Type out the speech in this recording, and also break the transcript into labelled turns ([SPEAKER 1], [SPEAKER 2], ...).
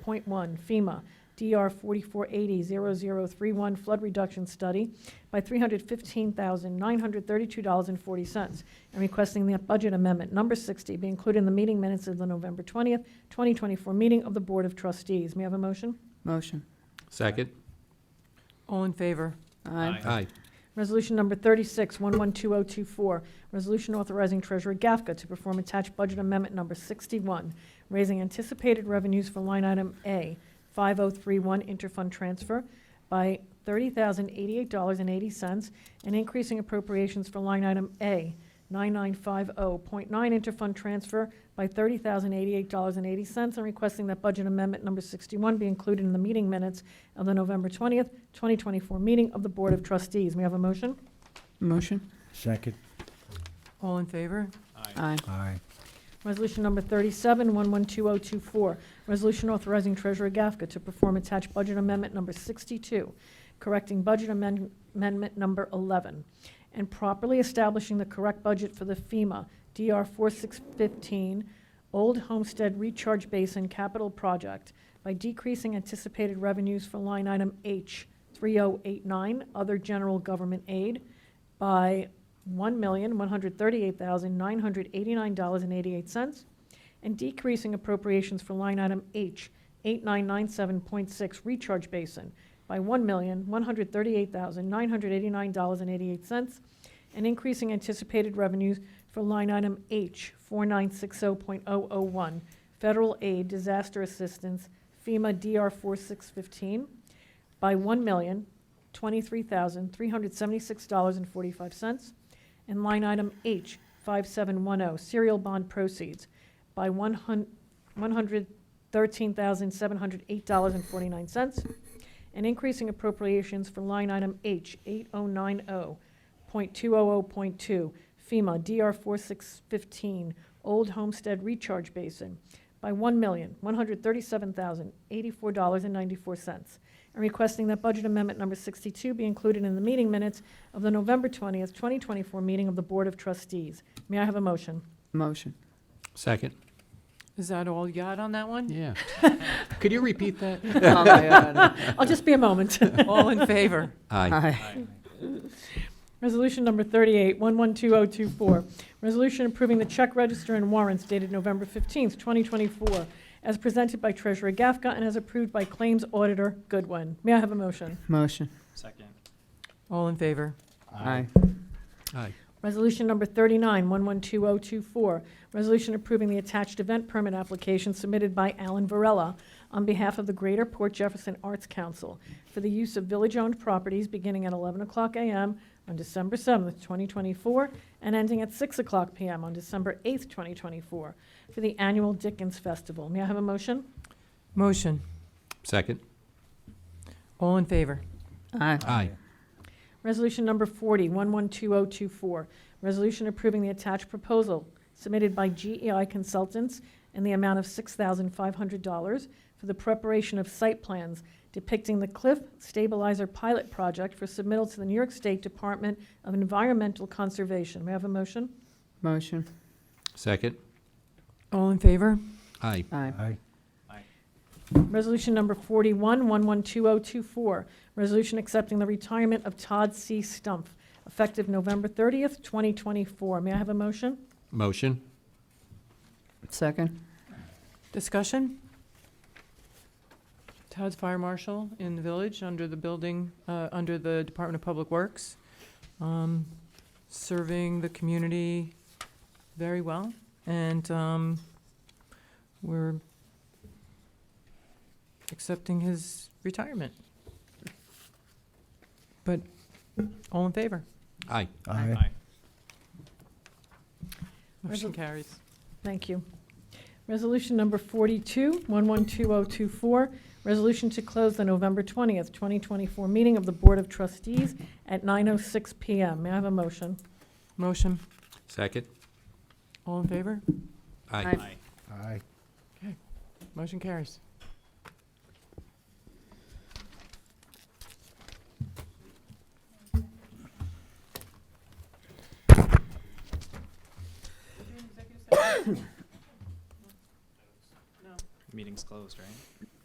[SPEAKER 1] point one FEMA DR forty-four eighty zero zero three one flood reduction study by three hundred fifteen thousand nine hundred thirty-two dollars and forty cents, and requesting that budget amendment number sixty be included in the meeting minutes of the November twentieth, twenty twenty-four meeting of the Board of Trustees. May I have a motion?
[SPEAKER 2] Motion.
[SPEAKER 3] Second?
[SPEAKER 4] All in favor?
[SPEAKER 2] Aye.
[SPEAKER 3] Aye.
[SPEAKER 1] Resolution number 36, 112024, resolution authorizing Treasurer Gafka to perform attached budget amendment number 61, raising anticipated revenues for line item A, 5031 interfund transfer by $30,088.80, and increasing appropriations for line item A, 9950.9 interfund transfer by $30,088.80, and requesting that budget amendment number 61 be included in the meeting minutes of the November 20th, 2024 meeting of the Board of Trustees. May I have a motion?
[SPEAKER 2] Motion.
[SPEAKER 5] Second.
[SPEAKER 4] All in favor?
[SPEAKER 2] Aye.
[SPEAKER 5] Aye.
[SPEAKER 1] Resolution number 37, 112024, resolution authorizing Treasurer Gafka to perform attached budget amendment number 62, correcting budget amend- amendment number 11, and properly establishing the correct budget for the FEMA DR 4615 Old Homestead Recharge Basin Capital Project by decreasing anticipated revenues for line item H 3089, other general government aid, by $1,138,989.88, and decreasing appropriations for line item H, 8997.6 recharge basin by $1,138,989.88, and increasing anticipated revenues for line item H, 4960.001 federal aid disaster assistance FEMA DR 4615 by one million, twenty-three thousand, three hundred seventy-six dollars and forty-five cents. And line item H, five-seven-one-oh, oh, serial bond proceeds by one hun- one hundred thirteen thousand, seven hundred eight dollars and forty-nine cents. And increasing appropriations for line item H, oh eight-oh-nine-oh-point-two-oh-oh-point-two, oh, FEMA DR four-six-fifteen, Old Homestead Recharge Basin by one million, one hundred thirty-seven thousand, eighty-four dollars and ninety-four cents and requesting that budget amendment number 62 be included in the meeting minutes of the November 20th, 2024 meeting of the Board of Trustees. May I have a motion?
[SPEAKER 2] Motion.
[SPEAKER 3] Second?
[SPEAKER 4] Is that all you got on that one?
[SPEAKER 3] Yeah. Could you repeat that?
[SPEAKER 2] Oh, my God.
[SPEAKER 1] I'll just be a moment.
[SPEAKER 4] All in favor?
[SPEAKER 3] Aye.
[SPEAKER 2] Aye.
[SPEAKER 1] Resolution number 38, 112024, resolution approving the check register and warrants dated November 15th, 2024, as presented by Treasurer Gafka and as approved by Claims Auditor Goodwin. May I have a motion?
[SPEAKER 2] Motion.
[SPEAKER 6] Second.
[SPEAKER 4] All in favor?
[SPEAKER 2] Aye.
[SPEAKER 3] Aye.
[SPEAKER 1] Resolution number 39, 112024, resolution approving the attached event permit application submitted by Alan Varela on behalf of the Greater Port Jefferson Arts Council for the use of village-owned properties beginning at 11 o'clock a.m. on December 7th, 2024, and ending at 6 o'clock p.m. on December 8th, 2024, for the annual Dickens Festival. May I have a motion?
[SPEAKER 4] Motion.
[SPEAKER 3] Second?
[SPEAKER 4] All in favor?
[SPEAKER 2] Aye.
[SPEAKER 3] Aye.
[SPEAKER 1] Resolution number 40, 112024, resolution approving the attached proposal submitted by GEI Consultants in the amount of $6,500 for the preparation of site plans depicting the Cliff Stabilizer Pilot Project for submittal to the New York State Department of Environmental Conservation. May I have a motion?
[SPEAKER 2] Motion.
[SPEAKER 3] Second?
[SPEAKER 4] All in favor?
[SPEAKER 3] Aye.
[SPEAKER 2] Aye.
[SPEAKER 5] Aye.
[SPEAKER 1] Resolution number 41, 112024, resolution accepting the retirement of Todd C. Stumpf, effective November 30th, 2024. May I have a motion?
[SPEAKER 3] Motion?
[SPEAKER 2] Second.
[SPEAKER 4] Discussion? Todd's Fire Marshal in the village, under the building, uh, under the Department of Public Works, um, serving the community very well. And um, we're accepting his retirement. But all in favor?
[SPEAKER 3] Aye.
[SPEAKER 5] Aye.
[SPEAKER 4] Motion
[SPEAKER 1] Resol-
[SPEAKER 4] carries.
[SPEAKER 1] Thank you. Resolution number 42, 112024, resolution to close the November 20th, 2024 meeting of the Board of Trustees at 9:06 PM. May I have a motion?
[SPEAKER 4] Motion.
[SPEAKER 3] Second?
[SPEAKER 4] All in favor?
[SPEAKER 3] Aye.
[SPEAKER 2] Aye.
[SPEAKER 6] Aye.
[SPEAKER 5] Aye.
[SPEAKER 4] Motion carries.
[SPEAKER 6] Meeting's closed, right?